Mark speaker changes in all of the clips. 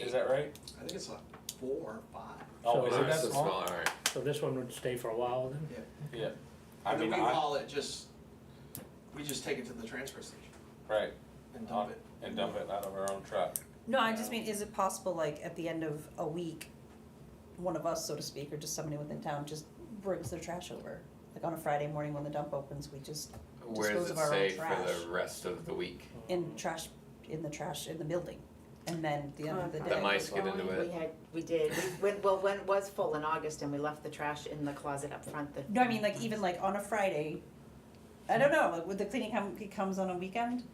Speaker 1: is that right?
Speaker 2: I think it's like four or five.
Speaker 1: Oh,
Speaker 3: So-
Speaker 1: is it that
Speaker 4: So
Speaker 1: small?
Speaker 4: All right.
Speaker 3: So this one would stay for a while then?
Speaker 1: Yeah. I
Speaker 2: And then
Speaker 1: mean,
Speaker 2: we
Speaker 1: I,
Speaker 2: haul it just, we just take it to the transfer station
Speaker 1: right,
Speaker 2: and dump it.
Speaker 1: and dump it out of our own truck.
Speaker 5: No, I just mean, is it possible, like, at the end of a week, one of us, so to speak, or just somebody within town just brings their trash over? Like on a Friday morning when the dump opens, we just,
Speaker 4: Where
Speaker 5: Dispose
Speaker 4: does it
Speaker 5: of our own
Speaker 4: say for
Speaker 5: trash.
Speaker 4: the rest of the week?
Speaker 5: in trash, in the trash, in the building, and then the end of the
Speaker 4: The
Speaker 5: day.
Speaker 4: That mice get into it.
Speaker 6: We had, we did, we, when, well, when it was full in August and we left the trash in the closet up front, the.
Speaker 5: No, I mean, like, even like on a Friday, I don't know, like, would the cleaning company comes on a weekend?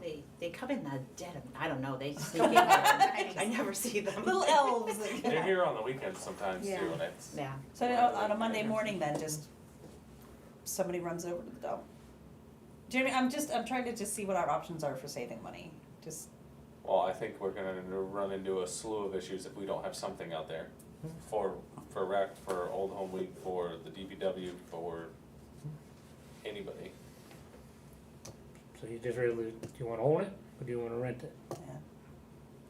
Speaker 6: They, they come in the dead of, I don't know, they sneak in, I I never see them.
Speaker 5: Little elves, like-
Speaker 1: They're here on the weekends sometimes too,
Speaker 5: Yeah.
Speaker 1: and it's.
Speaker 6: Yeah,
Speaker 5: So I don't- on a Monday morning then, just somebody runs over to the dump. Do you know what I mean? I'm just, I'm trying to just see what our options are for saving money, just.
Speaker 1: Well, I think we're gonna run into a slew of issues if we don't have something out there for, for rec, for Old Home Week, for the DPW, for anybody.
Speaker 3: So you just really, do you wanna own it or do you wanna rent it?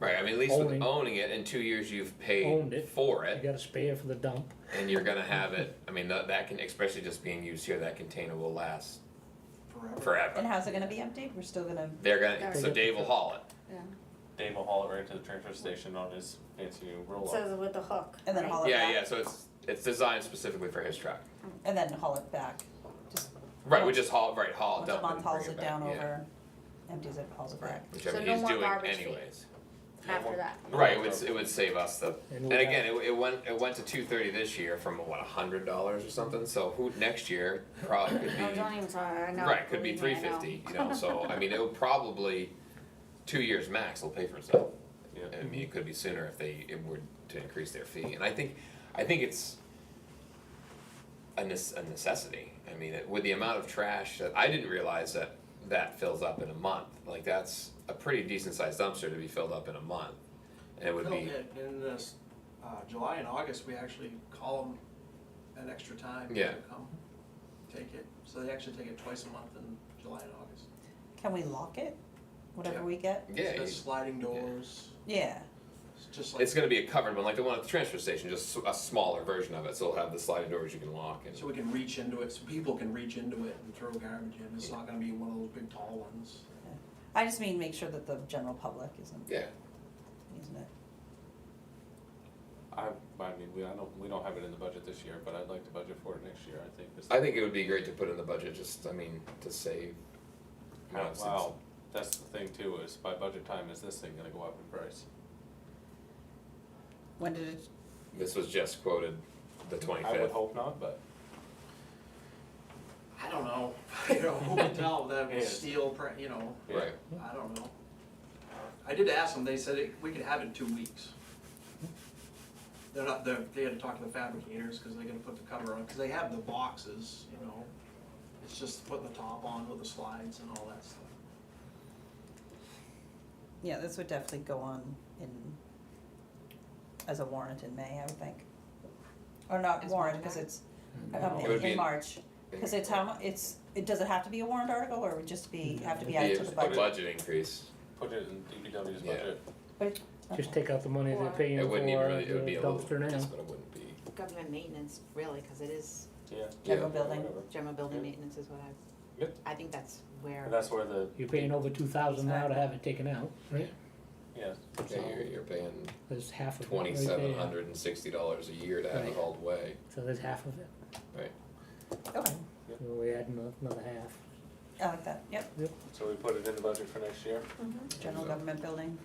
Speaker 4: Right. I mean, at least
Speaker 3: Owning.
Speaker 4: with owning it, in two years you've paid
Speaker 3: Owned it.
Speaker 4: for
Speaker 3: You
Speaker 4: it,
Speaker 3: gotta spare for the dump.
Speaker 4: and you're gonna have it. I mean, that, that can, especially just being used here, that container will last
Speaker 2: Forever.
Speaker 4: forever.
Speaker 5: And how's it gonna be emptied? We're still gonna,
Speaker 4: They're gonna. So Dave will haul it.
Speaker 1: Dave will haul it right to the transfer station on his fancy new roll up.
Speaker 7: Says with the hook.
Speaker 5: and then
Speaker 7: right?
Speaker 5: haul it
Speaker 4: Yeah,
Speaker 5: back?
Speaker 4: yeah. So it's it's designed specifically for his truck.
Speaker 5: And then haul it back, just
Speaker 4: Right. We just haul right haul it,
Speaker 5: once a
Speaker 4: dump it,
Speaker 5: month
Speaker 4: and bring
Speaker 5: hauls
Speaker 4: it
Speaker 5: it
Speaker 4: back.
Speaker 5: down
Speaker 4: yeah.
Speaker 5: over, empties it, hauls it
Speaker 4: Right.
Speaker 5: back.
Speaker 4: Whichever
Speaker 7: So no
Speaker 4: he's
Speaker 7: more
Speaker 4: doing
Speaker 7: garbage fee.
Speaker 4: anyways.
Speaker 7: After that.
Speaker 4: Right. It would it would save us the.
Speaker 3: And
Speaker 4: And
Speaker 3: we'll
Speaker 4: again, it, it went it went to two thirty this year from what hundred dollars or something. So who next year probably could be.
Speaker 7: Oh, don't even talk, I know.
Speaker 4: Right, could be three
Speaker 7: believe me, I know.
Speaker 4: fifty, you know, so, I mean, it'll probably, two years max will pay for itself.
Speaker 1: Yeah.
Speaker 4: I mean, it could be sooner if they, it were to increase their fee, and I think, I think it's a nes- a necessity, I mean, it- with the amount of trash that, I didn't realize that that fills up in a month, like, that's a pretty decent sized dumpster to be filled up in a month. And it would
Speaker 2: Phil
Speaker 4: be,
Speaker 2: did. In this, uh, July and August, we actually call them an extra time
Speaker 4: Yeah.
Speaker 2: to come take it. So they actually take it twice a month in July and August.
Speaker 5: Can we lock it, whatever
Speaker 2: Yeah.
Speaker 5: we get?
Speaker 4: yeah,
Speaker 2: So
Speaker 4: you-
Speaker 2: there's sliding doors,
Speaker 5: Yeah,
Speaker 2: it's just like,
Speaker 4: it's gonna be a covered one, like the one at the transfer station, just s- a smaller version of it, so it'll have the sliding doors you can lock and.
Speaker 2: so we can reach into it, so people can reach into it and throw garbage in. It's not gonna be one of those big tall ones.
Speaker 5: I just mean make sure that the general public isn't
Speaker 4: Yeah,
Speaker 5: using it.
Speaker 1: I, I mean, we, I don't, we don't have it in the budget this year, but I'd like to budget for it next year, I think. this-
Speaker 4: I think it would be great to put in the budget, just, I mean, to save. you know,
Speaker 1: Wow,
Speaker 4: since-
Speaker 1: wow, that's the thing too, is by budget time, is this thing gonna go up in price?
Speaker 5: When did it,
Speaker 4: This was just quoted the
Speaker 1: I would
Speaker 4: twenty-fifth.
Speaker 1: hope not, but.
Speaker 2: I don't know, you know, who can tell that
Speaker 1: Yeah.
Speaker 2: was steel, pre- you know,
Speaker 1: yeah.
Speaker 4: Right,
Speaker 2: I don't know. I did ask them, they said it- we could have it in two weeks. They're not, they're, they had to talk to the fabricators, cause they're gonna put the cover on, cause they have the boxes, you know. It's just putting the top on with the slides and all that stuff.
Speaker 5: yeah, this would definitely go on in, as a warrant in May, I would think. Or not
Speaker 6: As
Speaker 5: warrant,
Speaker 6: warrant
Speaker 5: cause
Speaker 6: back?
Speaker 5: it's, um,
Speaker 4: Mm-hmm. It
Speaker 5: in,
Speaker 4: would
Speaker 5: in
Speaker 4: be in-
Speaker 5: March, cause it's how mu- it's, it, does it have to be a warrant article or would just be, have to be added to
Speaker 4: Mm-hmm. Be
Speaker 5: the
Speaker 4: a
Speaker 5: budget?
Speaker 4: budget increase,
Speaker 1: Put it in DPW's
Speaker 4: Yeah.
Speaker 1: budget.
Speaker 3: Just take out the money they're
Speaker 7: Or-
Speaker 3: paying
Speaker 4: it
Speaker 3: for
Speaker 4: wouldn't even really, it would be
Speaker 3: the
Speaker 4: a little,
Speaker 3: dumpster now.
Speaker 4: just, but it wouldn't be,
Speaker 6: government maintenance, really, cause it is,
Speaker 1: Yeah.
Speaker 5: General
Speaker 4: Yeah.
Speaker 5: building,
Speaker 1: Whatever.
Speaker 6: general building
Speaker 1: Good.
Speaker 6: maintenance is what I,
Speaker 1: Good.
Speaker 6: I think that's where.
Speaker 1: And that's where the,
Speaker 3: You're paying over two thousand now to have it taken out, right?
Speaker 1: yeah,
Speaker 4: yeah, you're, you're paying
Speaker 3: There's half of it right there.
Speaker 4: twenty-seven hundred and sixty dollars a year to have it
Speaker 3: Right.
Speaker 4: hauled away.
Speaker 3: So there's half of it.
Speaker 5: okay,
Speaker 3: So we add ano- another half.
Speaker 5: I like that, yep,
Speaker 1: so we put it in the budget for next year.
Speaker 7: Mhm.
Speaker 5: general
Speaker 4: So-
Speaker 5: government building,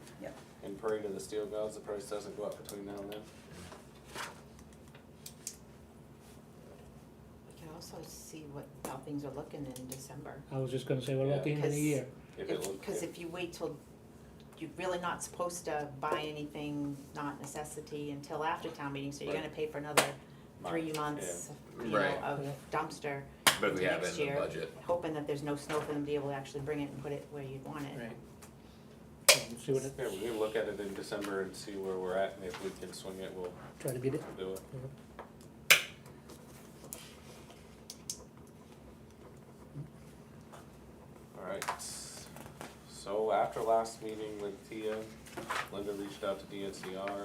Speaker 1: And pray to the steel gods, the price doesn't go up between now and then.
Speaker 6: We can also see what, how things are looking in December.
Speaker 3: I was just gonna say, what about the end of the
Speaker 6: Yeah.
Speaker 3: year?
Speaker 1: If it
Speaker 6: If,
Speaker 1: look-
Speaker 6: cause if you wait till, you're really not supposed to buy anything, not necessity, until after town meeting, so you're
Speaker 1: Right.
Speaker 6: gonna pay for another three
Speaker 1: March,
Speaker 6: months, you know,
Speaker 4: Right.
Speaker 6: of dumpster,
Speaker 4: But we have it in
Speaker 6: Next
Speaker 4: the
Speaker 6: year.
Speaker 4: budget,
Speaker 6: hoping that there's no snow for them to be able to actually bring it and put it where you'd want it.
Speaker 3: Right. Um, See what it,
Speaker 1: Yeah, Yeah, we can look at it in December and see where we're at, and if we can swing it, we'll
Speaker 3: try to get it.
Speaker 1: do it. Alright, so after last meeting with Tia, Linda reached out to DNCR